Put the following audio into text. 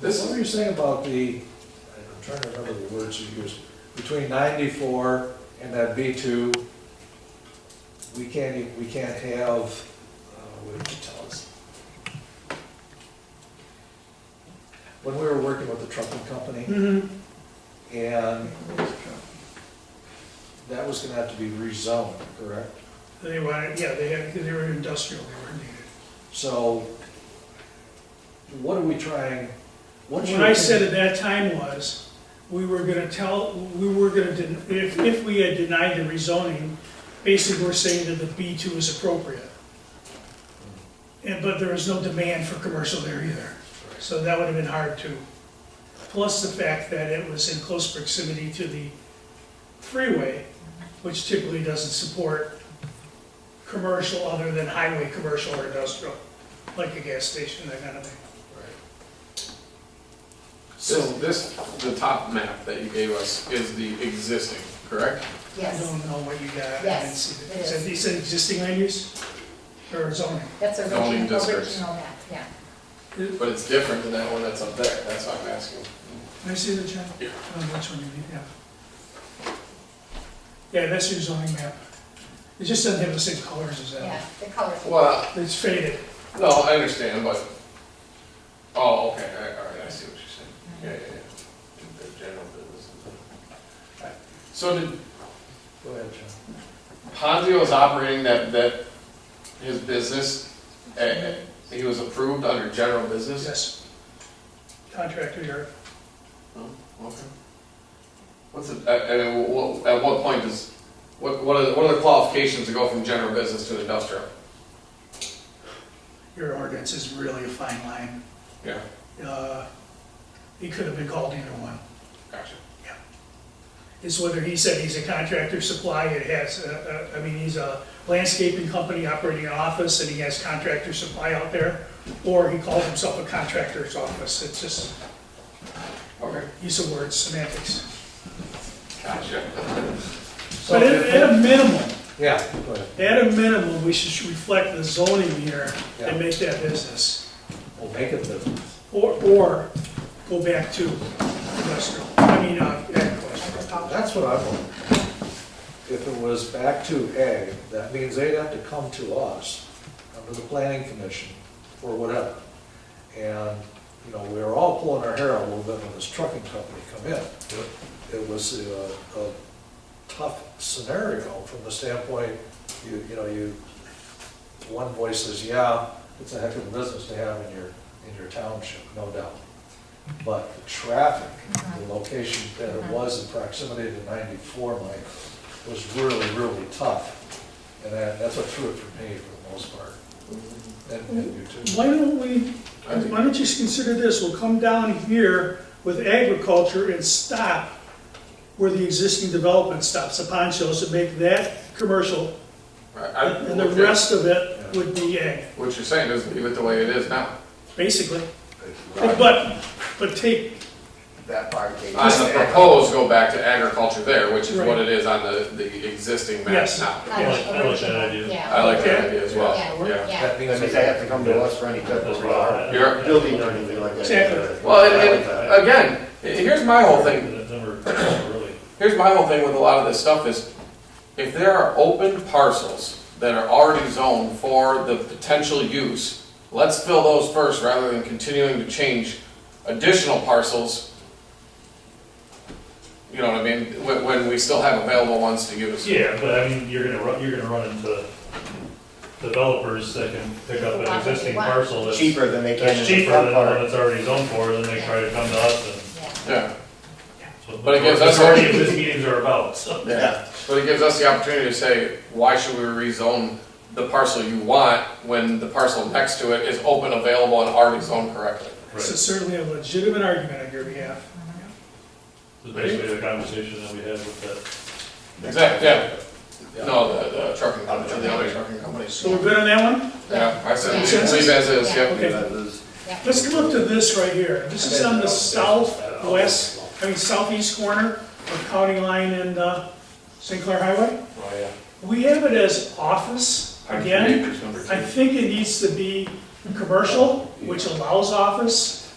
This- What were you saying about the, I'm trying to remember the words you used, between ninety-four and that B two, we can't, e- we can't have, uh, what did you tell us? When we were working with the trucking company, Mhm. and that was gonna have to be rezoned, correct? They wanted, yeah, they had, they were industrial, they were needed. So, what are we trying, what's your? What I opinion? said at that time was, we were gonna tell, we were gonna, den- if, if we had denied the rezoning, basically we're saying that the B two is appropriate. And, but there was no demand for commercial there either, so that would have been hard to. Plus the fact that it was in close proximity to the freeway, which typically doesn't support commercial other than highway commercial or industrial, like a gas station, that kind of thing. So this, the top map that you gave us is the existing, correct? I Yes, don't know what you got. I didn't Yes, see it Is that, is. you said existing land use or zoning? that's a Zoning original, districts. original map, yeah. But it's different than that one that's up there, that's why I'm asking. Can I see the chart? Yeah. Oh, which one you mean, yeah. Yeah, that's your zoning map. It just doesn't have the same colors as that. Yeah, the colors. Well, one. It's faded. no, I understand, but, oh, okay, all right, all right, I see what you're saying. Yeah, yeah, yeah. The general business. So did, Go ahead, John. Ponzio is operating that, that, his business, eh, eh, he was approved under general business? Yes. Contractor yard. Oh, okay. What's it, I, I mean, what, at what point does, what, what are, what are the qualifications to go from general business to industrial? Your ordinance is really a fine line. Yeah, Uh, It could have been called either one. gotcha. It's whether he said he's a contractor supply, it has, uh, uh, I mean, he's a landscaping company operating an office and he has contractor supply out there, or he calls himself a contractor's office, it's just Okay, use of words, semantics. gotcha. So But at, if- at a minimum, Yeah, go ahead. at a minimum, we should should reflect the zoning here and Yeah. make that business, We'll make it business. or, or go back to industrial, I mean, uh, agricultural. That's what I want. If it was back to A, that means they'd have to come to us, under the planning commission, or whatever. And, you know, we were all pulling our hair out a little bit when this trucking company come in. It was a, a tough scenario from the standpoint, you, you know, you, one voice says, yeah, it's a heck of a business to have in your, in your township, no doubt. But the traffic, the location that it was in proximity to 94, Mike, was really, really tough. And that, that's what threw it for me for the most part, and and you too. Why don't we, why don't you just consider this, we'll come down here with agriculture and stop where the existing development stops, the pond shows, and make that commercial, Right, I- and the rest of it Yeah. would be ag, What you're saying is leave it the way it is now. basically. But, but take, that part came. On the proposed, go back to agriculture there, which is what Right. it is on the, the existing map Yes. now. Kind like- I like that of original, idea. I Yeah, like that Okay. idea as well, Yeah. yeah. yeah. That That means means they have to come to us for any type of uh, You're- building or anything like that. Exactly. Well, I and, like that. and again, here's my whole thing, That number, that number really. Here's my whole thing with a lot of this stuff is, if there are open parcels that are already zoned for the potential use, let's fill those first rather than continuing to change additional parcels. You know what I mean, when, when we still have available ones to use. Yeah, but I mean, you're gonna run, you're gonna run into developers that can pick up an existing parcel that's. Cheaper than they can in That's the cheaper than front the one part. that's already zoned for, then they try to come to us yeah. Yeah, and. But it gives us- That's already what these meetings are about, so. yeah, but it gives us the opportunity to say, why should we rezone the parcel you want when the parcel next to it is open, available, and already zoned correctly? this is certainly a legitimate argument on your behalf. It's basically the conversation that we had with that. Exactly, yeah. No, the, the trucking company, the other trucking company. So we're good on that one? Yeah, I said, Yeah. leave leave as is, yeah. Okay. That is- Yeah. Let's come up to this right here. This is on the southwest, I mean southeast corner of County Line and uh, St. Clair Highway. Oh, yeah. We have it as office, again, I think it needs to be commercial, which allows office,